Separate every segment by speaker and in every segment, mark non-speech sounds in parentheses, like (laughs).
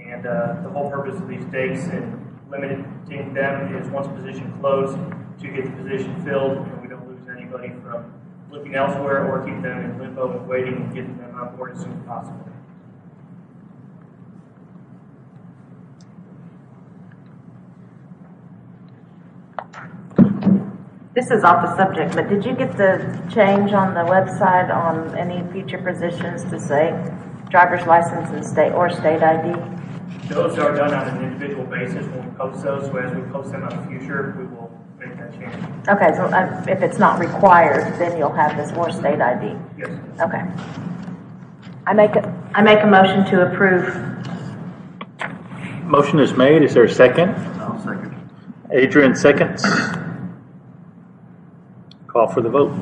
Speaker 1: And uh, the whole purpose of these dates and limiting them is once a position closed, to get the position filled, and we don't lose anybody from looking elsewhere or keep them in limbo and waiting and getting them on board as soon as possible.
Speaker 2: This is off the subject, but did you get the change on the website on any future positions to say driver's license and state, or state ID?
Speaker 1: Those are done on an individual basis when we post those, so as we post them on the future, we will make that change.
Speaker 2: Okay, so uh, if it's not required, then you'll have this or state ID.
Speaker 1: Yes.
Speaker 2: Okay. I make, a I make a motion to approve.
Speaker 3: Motion is made. Is there a second?
Speaker 4: I'll second.
Speaker 3: Adrian seconds. Call for the vote.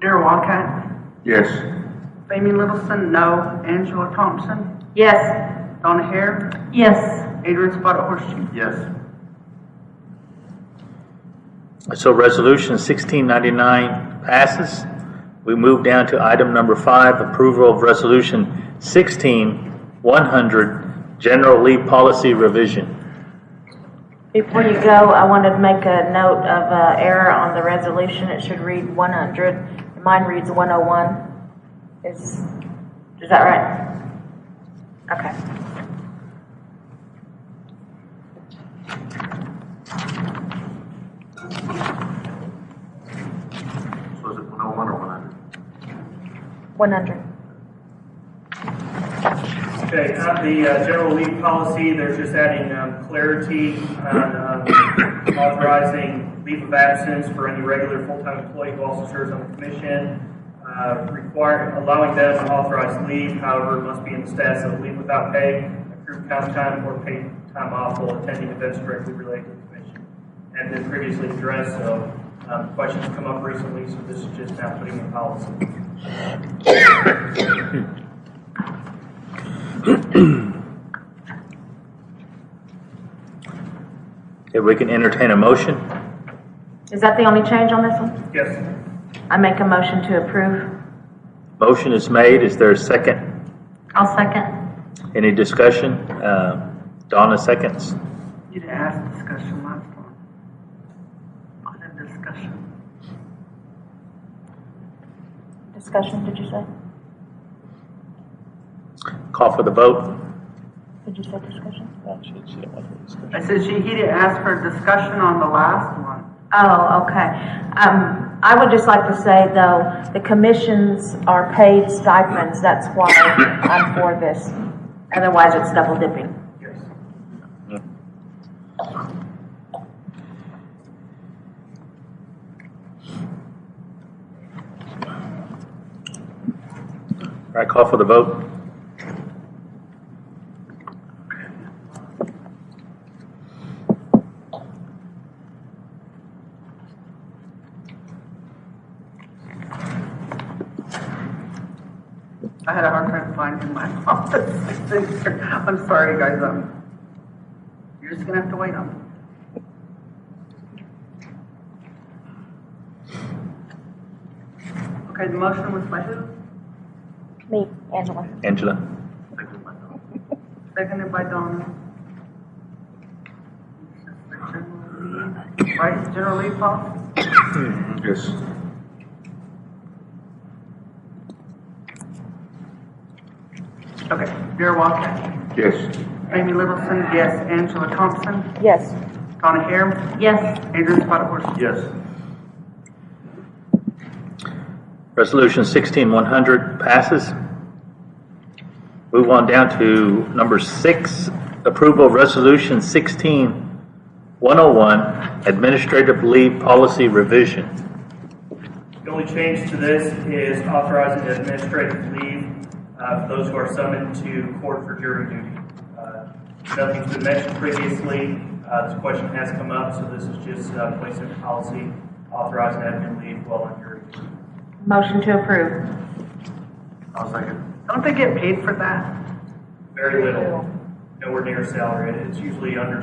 Speaker 5: Darrell Walcott,
Speaker 4: Yes.
Speaker 5: Jamie Littleson, no. Angela Thompson,
Speaker 2: Yes.
Speaker 5: Donna Hare,
Speaker 2: Yes.
Speaker 5: Adrian Spotted Horseshoe.
Speaker 4: Yes.
Speaker 3: So resolution 1699 passes. We move down to item number five, approval of resolution 16100, general leave policy revision.
Speaker 2: Before you go, I wanted to make a note of uh, error on the resolution. It should read 100. Mine reads 101. Is, is that right? Okay.
Speaker 4: So is it one oh one or one hundred?
Speaker 2: 100.
Speaker 1: Okay, on the uh, general leave policy, there's just adding um, clarity on um, authorizing leave of absence for any regular full-time employee who also serves on the commission. Uh, Require, allowing them to authorize leave, however, it must be in the status of leave without pay, accrued comp time, or paid time off while attending events directly related to the commission. And then previously addressed, so um, questions come up recently, so this is just now putting in policy.
Speaker 3: If we can entertain a motion.
Speaker 2: Is that the only change on this one?
Speaker 1: Yes?
Speaker 2: I make a motion to approve.
Speaker 3: Motion is made. Is there a second?
Speaker 2: I'll second.
Speaker 3: Any discussion? Uh, Donna seconds.
Speaker 5: You didn't ask discussion last time. I had discussion.
Speaker 2: Discussion, did you say?
Speaker 3: Call for the vote.
Speaker 2: Did you say discussion?
Speaker 5: I said she, he didn't ask for a discussion on the last one.
Speaker 2: Oh, okay. Um, I would just like to say though, the commissions are paid stipends, that's why I'm for this. Otherwise, it's double dipping.
Speaker 1: Yes.
Speaker 3: All right, call for the vote.
Speaker 5: I had a hard time finding my (laughs) office. I'm sorry, guys, um, you're just gonna have to wait on me. Okay, the motion was by who?
Speaker 2: Me, Angela.
Speaker 3: Angela.
Speaker 4: Second by no.
Speaker 5: Seconded by Donna. Right, General Lee Paul?
Speaker 4: Yes.
Speaker 5: Okay, Darrell Walker.
Speaker 4: Yes.
Speaker 5: Amy Littleson, yes. Angela Thompson,
Speaker 2: Yes.
Speaker 5: Donna Hare,
Speaker 2: Yes.
Speaker 5: Adrian Spotted
Speaker 4: Yes.
Speaker 3: Resolution 16100 passes. Move on down to number six, approval of resolution 16101, administrative leave policy revision.
Speaker 1: The only change to this is authorizing the administrative leave uh, for those who are summoned to court for jury duty. Uh, Nothing's been mentioned previously, Uh, this question has come up, so this is just uh, placing a policy authorizing admin leave while on jury duty.
Speaker 2: Motion to approve.
Speaker 4: I'll second.
Speaker 5: Don't they get paid for that?
Speaker 1: Very little, nowhere near salary, it's usually under